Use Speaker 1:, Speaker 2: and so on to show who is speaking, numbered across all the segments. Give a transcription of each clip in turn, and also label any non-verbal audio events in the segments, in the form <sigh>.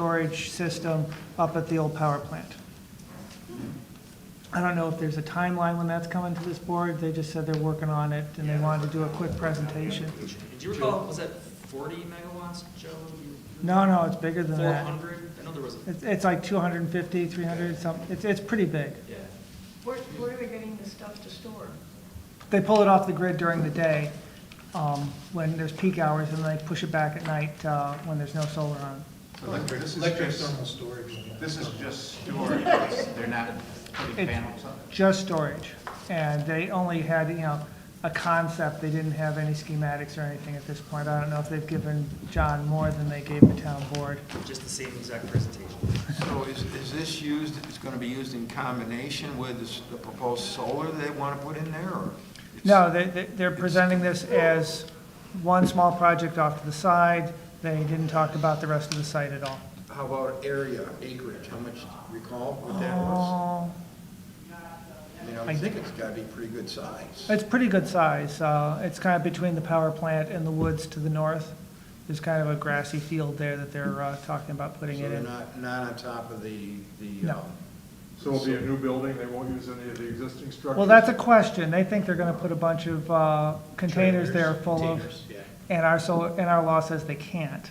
Speaker 1: storage system up at the old power plant. I don't know if there's a timeline when that's coming to this board, they just said they're working on it, and they wanted to do a quick presentation.
Speaker 2: Do you recall, was that 40 megawatts, Joe?
Speaker 1: No, no, it's bigger than that.
Speaker 2: 400? I know there was, a
Speaker 1: It's, it's like 250, 300, something, it's, it's pretty big.
Speaker 2: yeah.
Speaker 3: Where, where are we getting the stuff to store?
Speaker 1: They pull it off the grid during the day, um, when there's peak hours, and they push it back at night, uh, when there's no solar on.
Speaker 4: Electric,
Speaker 5: This is
Speaker 4: electric
Speaker 5: just-
Speaker 4: thermal storage.
Speaker 5: This is just
Speaker 1: <laughs>
Speaker 5: storage, It's- they're not putting
Speaker 1: It's-
Speaker 5: panels on it.
Speaker 1: just storage. And they only had, you know, a concept, they didn't have any schematics or anything at this point. I don't know if they've given John more than they gave the town board.
Speaker 2: just the same exact presentation.
Speaker 6: So is, is this used, it's going to be used in combination with this- the proposed solar they want to put in there, or? it's-
Speaker 1: No, they, they- they're presenting this as one small project off to the side. They didn't talk about the rest of the site at all.
Speaker 6: How about area, acreage, how much, recall what that was? I mean, I
Speaker 1: I-
Speaker 6: would think it's got to be pretty good size.
Speaker 1: It's pretty good size. Uh, It's kind of between the power plant and the woods to the north. There's kind of a grassy field there that they're uh, talking about
Speaker 6: So
Speaker 1: putting it
Speaker 6: they're
Speaker 1: in.
Speaker 6: not, not on top of the, the,
Speaker 1: No.
Speaker 6: um,
Speaker 7: So it'll be a new building, they won't use any of the existing structures?
Speaker 1: Well, that's a question. They think they're gonna put a bunch of uh, containers there full of,
Speaker 6: containers, yeah.
Speaker 1: and our solar, and our law says they can't.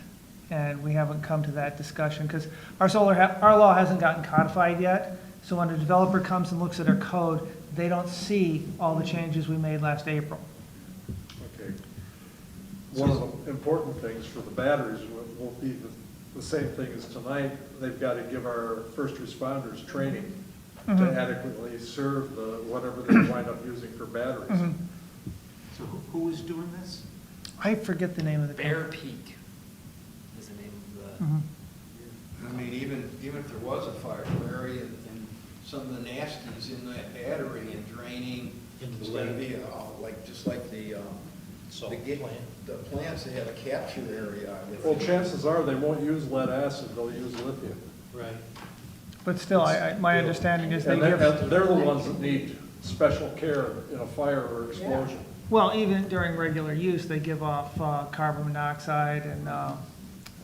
Speaker 1: And we haven't come to that discussion, because our solar, ha- our law hasn't gotten codified yet. So when a developer comes and looks at our code, they don't see all the changes we made last April.
Speaker 7: Okay. One of the important things for the batteries will- will be the, the same thing as tonight, they've got to give our first responders training to adequately serve the, whatever they wind up using for batteries.
Speaker 5: So who- who is doing this?
Speaker 1: I forget the name of the.
Speaker 2: Bear Peak is the name of the,
Speaker 1: Mhm.
Speaker 6: I mean, even, even if there was a fire, Larry, and, and some of the nasties in that battery and draining, it's gonna be, uh, like, just like the, um, the gate, the plants, they have a capture area. I would
Speaker 7: Well,
Speaker 6: think.
Speaker 7: chances are, they won't use lead acid, they'll use lithium.
Speaker 4: Right.
Speaker 1: But still, I, I, my understanding is they
Speaker 7: And
Speaker 1: give.
Speaker 7: they're, they're the ones that need special care in a fire or explosion.
Speaker 1: Well, even during regular use, they give off uh, carbon monoxide and uh,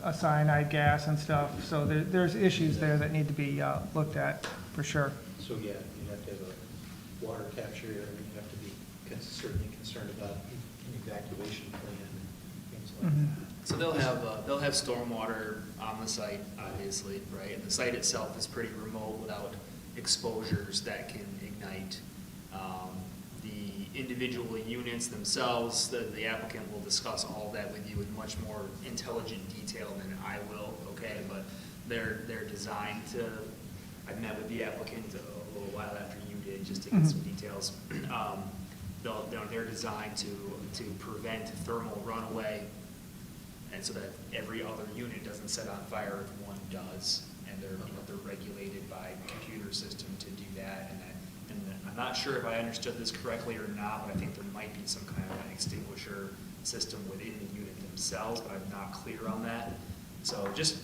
Speaker 1: a cyanide gas and stuff. So there, there's issues there that need to be uh, looked at, for sure.
Speaker 4: So, yeah, you'd have to have a water capture area, you'd have to be con- certainly concerned about an evacuation plan and things like
Speaker 1: Mm-hmm.
Speaker 4: that.
Speaker 2: so they'll have, uh, they'll have stormwater on the site, obviously, right? And the site itself is pretty remote without exposures that can ignite. Um, The individual units themselves, the the applicant will discuss all that with you in much more intelligent detail than I will, okay? But they're, they're designed to I met with the applicant a little while after you did, just to get some details. Um, They'll, they're, they're designed to, to prevent thermal runaway, and so that every other unit doesn't set on fire if one does. And they're, you know, they're regulated by computer system to do that, and that, and then, I'm not sure if I understood this correctly or not, but I think there might be some kind of an extinguisher system within the unit themselves, but I'm not clear on that. So just,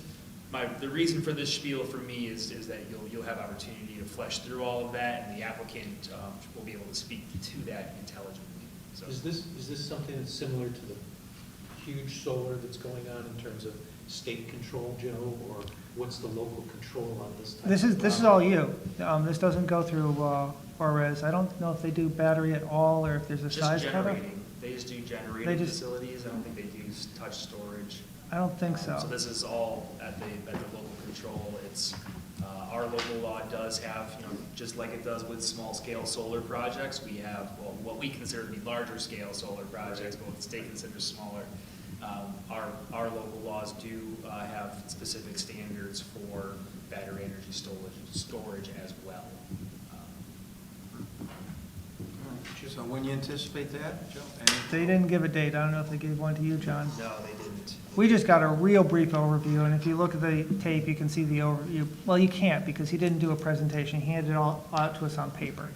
Speaker 2: my, the reason for this spiel for me is, is that you'll, you'll have opportunity to flesh through all of that, and the applicant, um, will be able to speak to that intelligently, so.
Speaker 4: Is this, is this something that's similar to the huge solar that's going on in terms of state control, Joe? Or what's the local control on this type of?
Speaker 1: This is, this is all you. Um, This doesn't go through uh, ORES. I don't know if they do battery at all, or if there's a size
Speaker 2: Just
Speaker 1: cutoff.
Speaker 2: generating, they just do
Speaker 1: They
Speaker 2: generating
Speaker 1: just-
Speaker 2: facilities, I don't think they do s- touch storage.
Speaker 1: I don't think so.
Speaker 2: So this is all at the, at the local control, it's, uh, our local law does have, you know, just like it does with small-scale solar projects, we have, well, what we consider to be larger-scale solar projects, but what the state considers smaller. Um, our, our local laws do, uh, have specific standards for battery energy storage, storage as well. Um,
Speaker 6: So when you anticipate that, Joe? And-
Speaker 1: They didn't give a date. I don't know if they gave one to you, John.
Speaker 2: No, they didn't.
Speaker 1: We just got a real brief overview, and if you look at the tape, you can see the overview. Well, you can't, because he didn't do a presentation. He handed it all out to us on paper.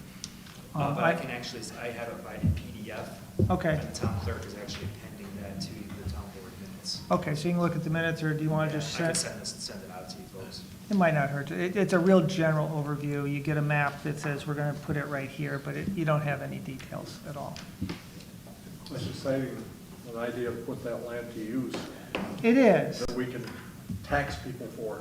Speaker 2: Uh,
Speaker 1: Um,
Speaker 2: But I can actually, I have it by PDF.
Speaker 1: Okay.
Speaker 2: And the town clerk is actually appending that to the town board minutes.
Speaker 1: Okay, so you can look at the minutes, or do you want to just
Speaker 2: I can
Speaker 1: send?
Speaker 2: send this, send it out to you folks.
Speaker 1: It might not hurt. to- It, it's a real general overview. You get a map that says, we're going to put it right here, but it, you don't have any details at all.
Speaker 7: It's exciting, an idea to put that land to use,
Speaker 1: It is.
Speaker 7: that we can tax people for.